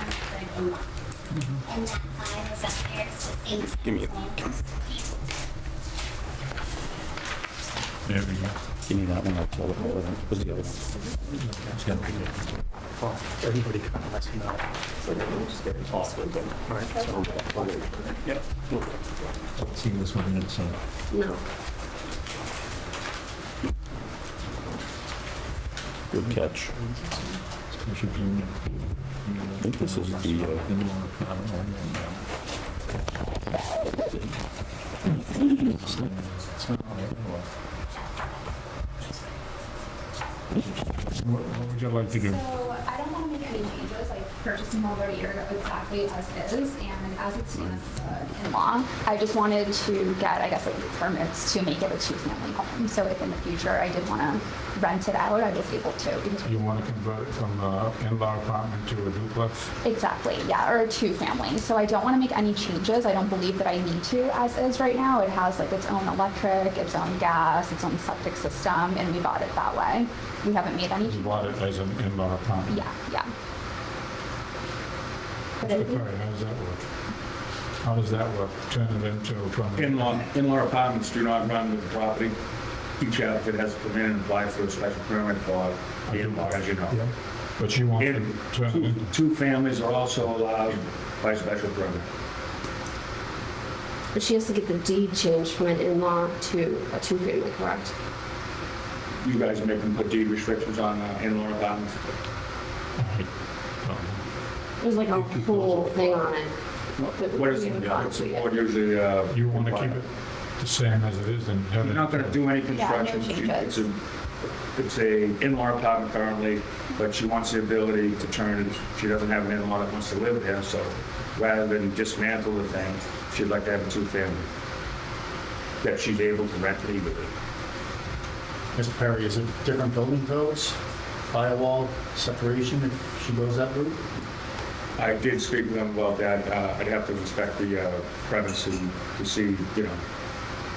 and that and that file is up there, so thanks. Give me There we go. Give me that one. I'll tell it. What's the other one? It's got to be there. Everybody kind of lets you know. See this one uh, in itself. Good catch. Special permit. I think this is the, uh, In-law apartment or in-law. It's not on everywhere. What what would you like to do? Mm-hmm. So I don't want to make any changes. I purchased them over a year ago exactly as is, and as it stands uh, in law, I just wanted to get, I guess, like permits to make it a two-family home. So if in the future I did want to rent it out, I was able to. because- You want to convert it from an in-law apartment to a duplex? Exactly, yeah, or a two-family. So I don't want to make any changes. I don't believe that I need to as is right now. It has like its own electric, its own gas, its own septic system, and we bought it that way. We haven't made any. You bought it as an in-law apartment? Yeah, yeah. But Mr. it- Perry, how does that work? How does that work? Turn it into a permanent? In-law, in-law apartments do not run with the property. Each applicant has to come in and apply for a special permit for the in-law, as you know. Yeah. But you want to And turn it two, into, two families are also allowed by special permit. But she has to get the deed changed from an in-law to a two-family, correct? You guys make them put deed restrictions on uh, in-law apartments. There's like a whole thing on it. What is, what's the board usually, uh? you want to keep it the same as it is and have You're it? not gonna do any no construction. changes. It's a, it's a in-law apartment currently, but she wants the ability to turn it, she doesn't have an in-law that wants to live there, so rather than dismantle the thing, she'd like to have a two-family that she's able to rent legally. Mr. Perry, is it different building codes, firewall separation if she goes that route? I did speak with them about that. Uh, I'd have to inspect the uh, premise and to see, you know,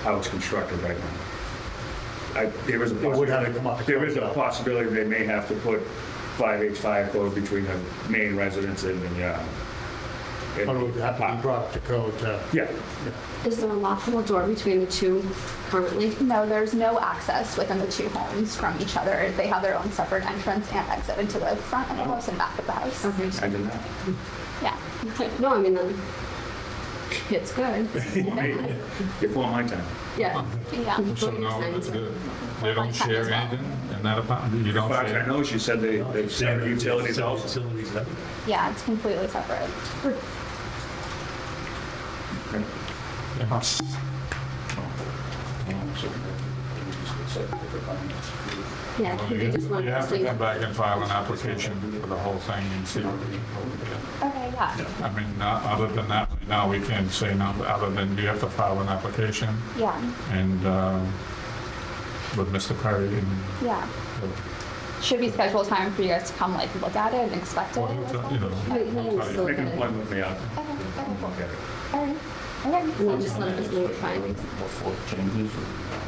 how it's constructed right now. I, there is a It would have to possibility, come up. there is a possibility they may have to put 5H5 code between the main residence and the, uh, and- Or would it have to be brought up to code to? Yeah, Is there a lockable door between the two currently? No, there's no access within the two homes from each other. They have their own separate entrance and exit into the front of the house and back of the house. Okay, I did not. Yeah. no, I mean, then, it's good. Hey, Before my time. Yeah. Yeah. So now, the- they don't share anything in that apartment? You don't But I share? know she said they, they said utilities also. Utilities, that- Yeah, it's completely separate. Yeah, Well, they You just want you have to to come back and file an application for the whole thing and see. what we can do. Okay, yeah. I mean, uh, other than that, right now we can't say no, other than you have to file an application Yeah, and uh, with Mr. Perry and, yeah. uh, Should we schedule time for you guys to come like look at it and inspect it? well, or you something? know. Wait, he we'll tell is you. still- Make an appointment with me, I'll Okay, okay, cool. look at it. All right. Okay. And then just let us know your findings. Before it changes.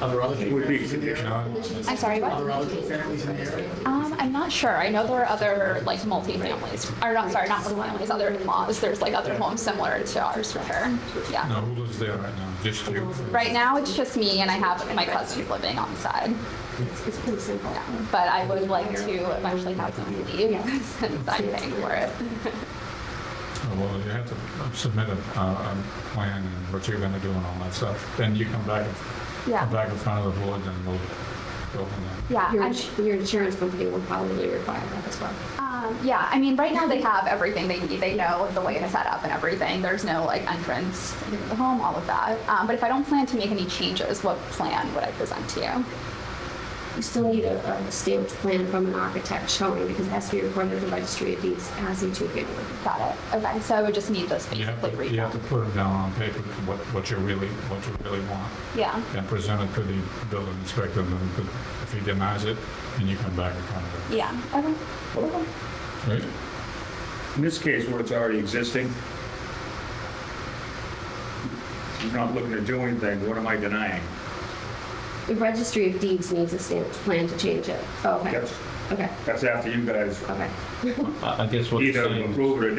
Are there other? Would be a condition. No, I'm sorry, Are there what? other families in the area? Um, I'm not sure. I know there are other like multi-families, or not, sorry, not multi-families, other in-laws. There's like other homes similar to ours for sure. Yeah. No, who lives there right now? Just you? Right now, it's just me and I have my cousins living on the side. It's it's pretty simple. But I would like to eventually have them leave since I'm paying for it. Oh, Well, you have to submit a, uh, a plan and what you're gonna do and all that stuff. Then you come back, come Yeah, back in front of the board and we'll go from there. yeah. Your, I'm- ins- your insurance company will probably require that as well. Um, yeah, I mean, right now they have everything they need. They know the way to set up and everything. There's no like entrance into the home, all of that. Um, but if I don't plan to make any changes, what plan would I present to you? You still need a, a stamped plan from an architect showing because it has to be recorded at the registry of deeds as a two-family. Got it. Okay, so I would just need this You have basically to, you have redone. to put it down on paper, what, what you really, what you really want. Yeah. and present it to the building inspector, and then if- if he denies it, then you come back in front of him. Yeah. Okay. Okay. Right? In this case, where it's already existing, he's not looking to do anything, what am I denying? The registry of deeds needs a stamped plan to change it. Oh, okay. That's, Okay, that's after you guys okay. I I guess what you're either saying. approve it or